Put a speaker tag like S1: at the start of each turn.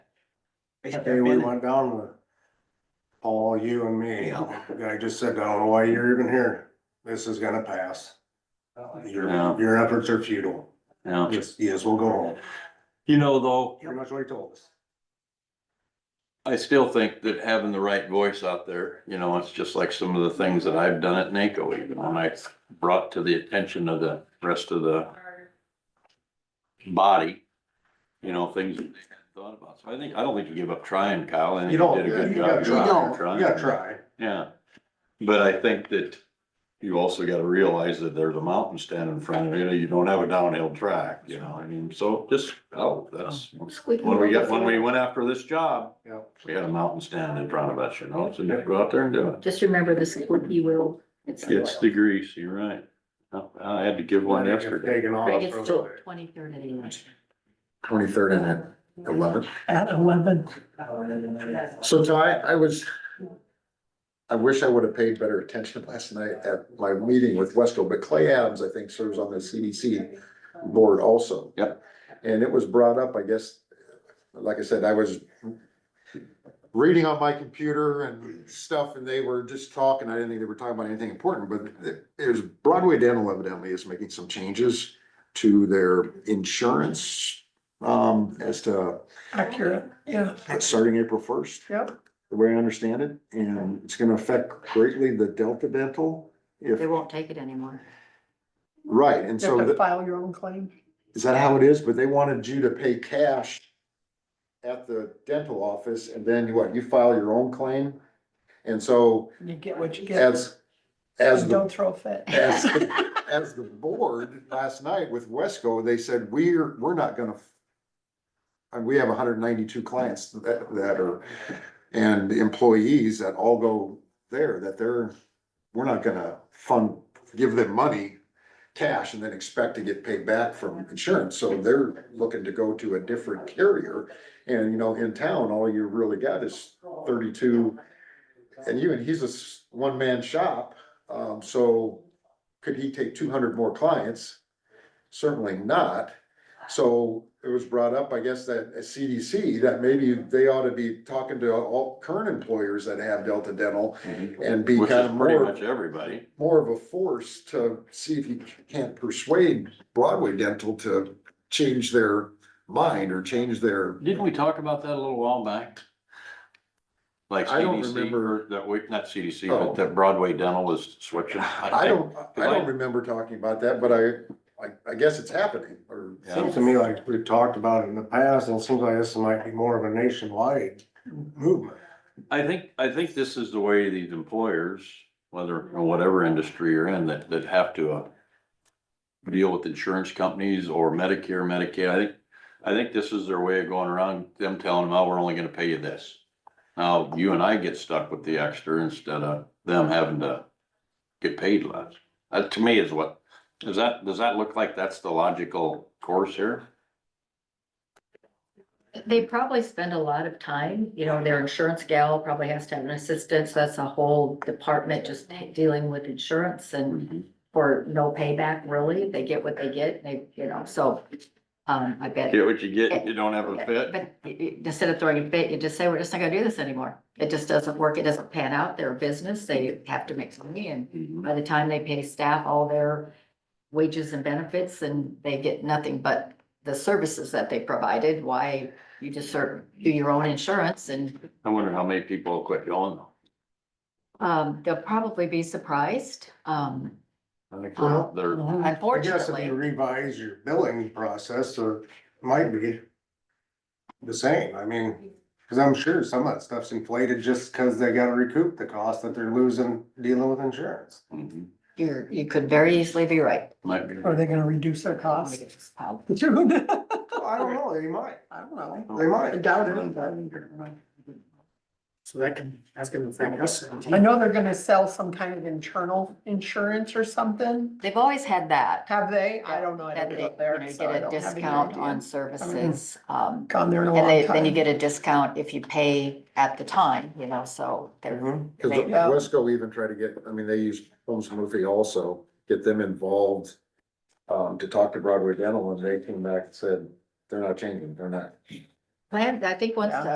S1: We have
S2: Hey,
S1: there
S2: we
S1: been,
S2: went down with Paul, you and me.
S1: Yeah.
S2: The guy just said, I don't know why you're even here. This is gonna pass. Your,
S3: Yeah.
S2: your efforts are futile.
S3: Yeah,
S2: Yes, yes, we'll go home.
S3: you know, though,
S2: Pretty much what he told us.
S3: I still think that having the right voice out there, you know, it's just like some of the things that I've done at NACO even when I brought to the attention of the rest of the body, you know, things that they hadn't thought about. So I think, I don't think you give up trying, Kyle. I think
S2: You don't,
S3: did a good
S2: you
S3: job
S2: gotta try,
S3: trying,
S2: you
S3: trying.
S2: gotta try.
S3: Yeah, but I think that you also gotta realize that there's a mountain standing in front of you, you don't have a downhill track, you know, I mean, so just, oh, that's. When we got, when we went after this job,
S2: Yep.
S3: we had a mountain standing in front of us, you know, so just go out there and do it.
S4: Just remember the squeaky wheel.
S3: It's the grease, you're right. I had to give one yesterday.
S2: Taking off.
S4: Greg, it's still
S2: really.
S4: twenty-third anyway.
S5: Twenty-third and at eleven.
S1: at eleven,
S5: So Ty, I was, I wish I would have paid better attention last night at my meeting with Wesco, but Clay Adams, I think, serves on the CDC board also.
S3: Yep.
S5: And it was brought up, I guess, like I said, I was reading on my computer and stuff, and they were just talking, I didn't think they were talking about anything important, but it- it was Broadway Dental evidently is making some changes to their insurance, um, as to
S1: accurate, yeah.
S5: that's starting April first.
S1: Yep.
S5: The way I understand it, and it's gonna affect greatly the Delta Dental. If,
S4: They won't take it anymore.
S5: right, and
S1: You
S5: so
S1: have to
S5: that,
S1: file your own claim.
S5: is that how it is? But they wanted you to pay cash at the dental office and then you what? You file your own claim? And so
S1: You get what you get.
S5: as, as
S1: And
S5: the
S1: Don't throw a fit.
S5: As, as the board last night with Wesco, they said, we're, we're not gonna. And we have hundred and ninety-two clients that, that are, and employees that all go there, that they're, we're not gonna fund, give them money. Cash and then expect to get paid back from insurance, so they're looking to go to a different carrier. And you know, in town, all you really got is thirty-two. And even he's a s- one-man shop, um, so could he take two hundred more clients? Certainly not. So it was brought up, I guess, that at CDC, that maybe they ought to be talking to all current employers that have Delta Dental
S3: Mhm. Which
S5: and be
S3: is
S5: kind of
S3: pretty
S5: more,
S3: much everybody.
S5: more of a force to see if you can't persuade Broadway Dental to change their mind or change their
S3: Didn't we talk about that a little while back? Like
S5: I don't
S3: CDC,
S5: remember-
S3: or that we, not CDC,
S5: Oh.
S3: but that Broadway Dental was switching.
S5: I don't, I don't remember talking about that, but I, I, I guess it's happening, or
S2: Seems to me like we've talked about it in the past, and it seems like this might be more of a nationwide movement.
S3: I think, I think this is the way these employers, whether, or whatever industry you're in, that, that have to uh, deal with insurance companies or Medicare, Medicaid, I think, I think this is their way of going around, them telling them, oh, we're only gonna pay you this. Now, you and I get stuck with the extra instead of them having to get paid less. That to me is what, does that, does that look like that's the logical course here?
S4: They probably spend a lot of time, you know, their insurance gal probably has to have an assistant, so that's a whole department just dealing with insurance and for no payback really. They get what they get, they, you know, so, um, I bet.
S3: Get what you get, you don't have a fit.
S4: But i- i- instead of throwing a fit, you just say, we're just not gonna do this anymore. It just doesn't work. It doesn't pan out. They're a business. They
S2: Mm-hmm.
S4: have to make money and
S3: Mhm.
S4: by the time they pay staff all their wages and benefits and they get nothing but the services that they provided, why you just sort of do your own insurance and
S3: I wonder how many people will quit going though.
S4: um, they'll probably be surprised, um,
S3: I think
S4: Uh,
S3: they're- they're,
S2: I guess if you
S4: unfortunately.
S2: revise your billing process, so it might be the same, I mean, cause I'm sure some of that stuff's inflated just cause they gotta recoup the cost that they're losing dealing with insurance.
S3: mhm,
S4: You're, you could very easily be right.
S3: might be.
S1: Are they gonna reduce their costs?
S4: Um,
S1: I don't know.
S2: Well, I don't know, they might, they
S1: I
S2: might.
S1: doubt it. but-
S6: So that can, that's gonna affect us.
S1: I know they're gonna sell some kind of internal insurance or something.
S4: They've always had that.
S1: Have they? I don't know. I don't
S4: That they,
S1: go
S4: you
S1: up
S4: know,
S1: there.
S4: you
S1: so I
S4: get a
S1: don't have any
S4: discount
S1: idea.
S4: on services, um,
S1: Gone there in a long
S4: and
S1: time.
S4: they, then you get a discount if you pay at the time, you know, so they're.
S2: Mhm.
S5: Cause
S4: They-
S1: Yeah.
S5: Wesco even tried to get, I mean, they use Holmes Murphy also, get them involved. Um, to talk to Broadway Dental and they came back and said, they're not changing, they're not
S4: Plan, I think once
S1: Yeah.
S4: the